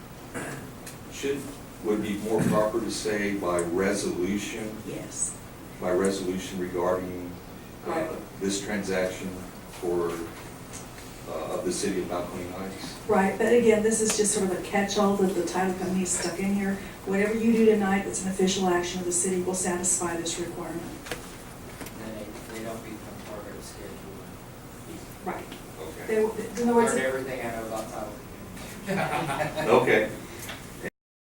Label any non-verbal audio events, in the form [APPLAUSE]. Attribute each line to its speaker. Speaker 1: should, would be more proper to say by resolution,
Speaker 2: Yes.
Speaker 1: by resolution regarding uh,
Speaker 2: Right.
Speaker 1: this transaction for, uh, of the city of Balcony Heights.
Speaker 2: Right, but again, this is just sort of a catch-all that the title company is stuck in here. Whatever you do tonight that's an official action of the city will satisfy this requirement.
Speaker 3: Then they, they don't become part of the schedule.
Speaker 2: Right. They,
Speaker 1: Okay.
Speaker 2: in other words,
Speaker 3: [LAUGHS] Learn everything I know about
Speaker 1: [LAUGHS]
Speaker 3: title.
Speaker 1: Okay,